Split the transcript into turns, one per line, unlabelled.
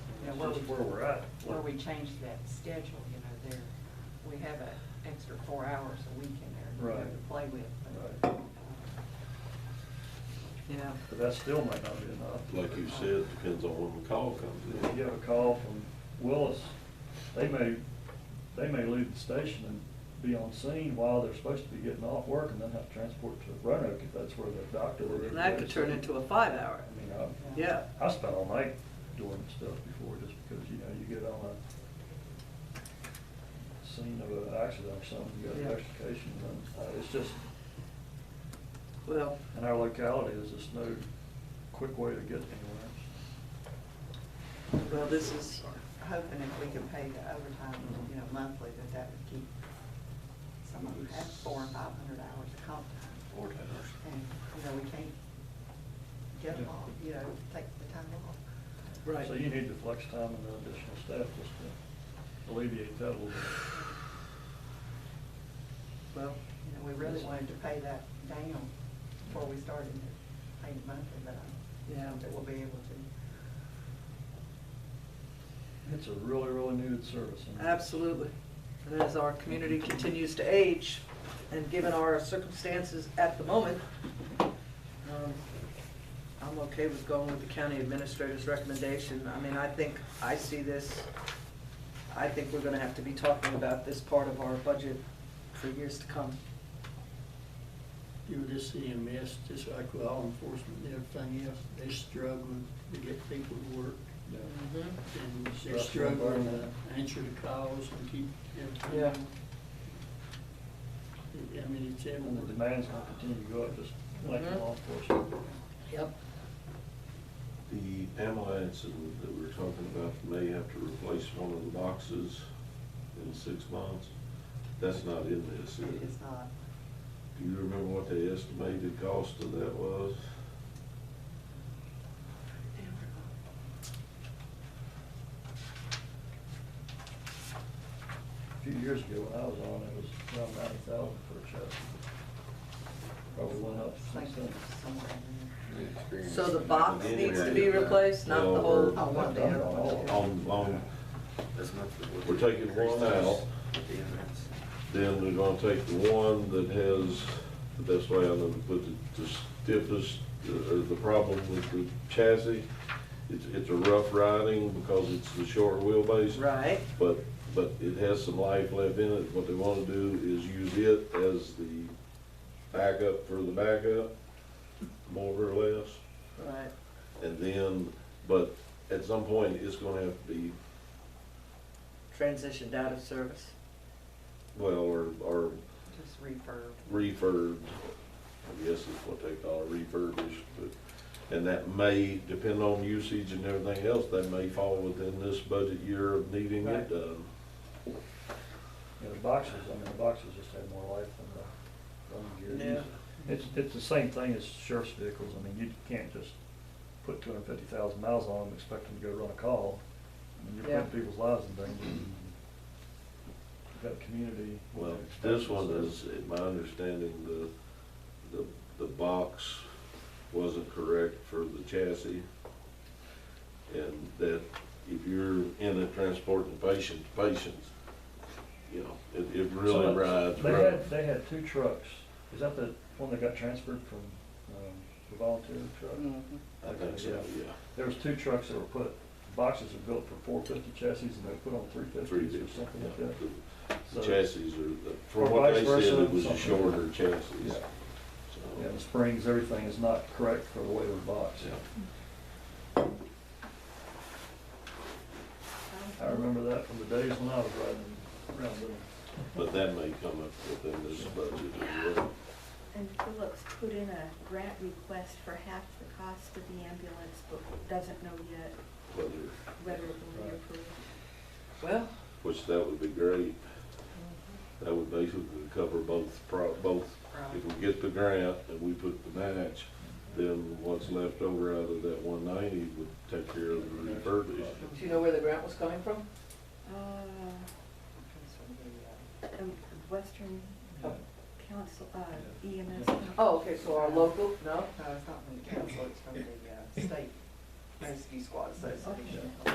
where
just
we-
where we're at.
Where we changed that schedule, you know, there, we have an extra four hours a week in there to be able
Right.
to play with. but,
Right.
uh, You know,
But that still might not be enough.
Like you said, depends on when the call comes
If
in.
you have a call from Willis, they may, they may leave the station and be on scene while they're supposed to be getting off work and then have to transport to Roanoke if that's where the doctor is.
And that could turn into a five-hour,
I mean, I,
yeah.
I spent all night doing stuff before, just because, you know, you get on a scene of an accident or something, you got
Yeah.
an extrication, and uh, it's just,
Well,
in our locality, there's just no quick way to get anywhere.
well, this is,
hoping if we can pay the overtime, you know, monthly, that that would keep some of them at four and five hundred hours of comp time.
Four hours.
And, you know, we can't get them all, you know, take the time off.
right.
So you need the flex time and the additional staff just to alleviate that a little bit.
Well,
You know, we really wanted to pay that down before we started paying monthly, but I
Yeah.
don't think we'll be able to.
It's a really, really needed service. and-
absolutely. And as our community continues to age, and given our circumstances at the moment, um, I'm okay with going with the county administrator's recommendation. I mean, I think, I see this, I think we're gonna have to be talking about this part of our budget for years to come.
You were just CMS, E just like with law enforcement and everything else, they're struggling to get people to work.
Yeah.
And they're
Stressful
struggling
environment.
to answer the calls and keep everything.
Yeah.
I mean, it's
And the
everywhere.
demand's gonna continue to go up, just like the
Mhm.
law enforcement.
Yep.
The ambulance that we were talking about may have to replace one of the boxes in six months. That's not in this, is
It
it?
is not,
Do you remember what the estimated cost of that was?
A few years ago, when I was on, it was around ninety thousand for a chest. Probably went up since
thinking
then.
somewhere in there.
So the box
Anyway,
needs to be replaced, not the whole?
well,
Oh, one the other
we're-
one.
On, on,
That's not the
we're taking one out,
At the entrance.
then we're gonna take the one that has, the best way I know to put it, the stiffest, uh, the problem with the chassis. It's, it's a rough riding because it's the short wheelbase.
Right,
But, but it has some life left in it. What they wanna do is use it as the backup for the backup, more or less.
right.
And then, but at some point, it's gonna have to be,
Transitioned out of service.
well, or, or
just refurb.
refurbed, I guess is what they call it, refurbished, but, and that may, depend on usage and everything else, that may fall within this budget year of needing
Right.
it done.
You know, the boxes, I mean, the boxes just have more life than the running gear. It's, it's the same thing as sheriff's vehicles. I mean, you can't just put two hundred fifty thousand miles on them, and expect them to go run a call. I mean, you're
Yeah.
putting people's lives in danger. You've got community.
Well, this one is, in my understanding, the, the, the box wasn't correct for the chassis. And that if you're in it transporting patients, patients, you know, it, it really
Some-
rides.
They
rough.
had, they had two trucks. Is that the one that got transferred from, um, the volunteer truck?
I think so, yeah.
There was two trucks that were put, boxes were built for four fifty chassis and they put on three
Three
fifties or
different,
something like
yeah.
that.
The
So-
chassis are, the-
Or
from what they
vice versa,
said, it was a
something.
shorter chassis.
Yeah. Yeah,
So,
the springs, everything is not correct for the way of the box.
yeah.
I remember that from the days when I was riding around with them.
But that may come up within this budget as well.
And Phillips put in a grant request for half the cost of the ambulance, but doesn't know yet
whether,
whether it will be
Right.
approved.
Well,
which that would be great. That would basically cover both, pro- both. If we get the grant and we put the match, then what's left over out of that one ninety would take care of the refurbishment.
do you know where the grant was coming from?
Uh,
Because of the, uh,
um, Western
Yeah.
Council, uh,
Yeah.
EMS.
Oh, okay, so our local, no?
No, it's not from the council, it's from the uh, state rescue squad association.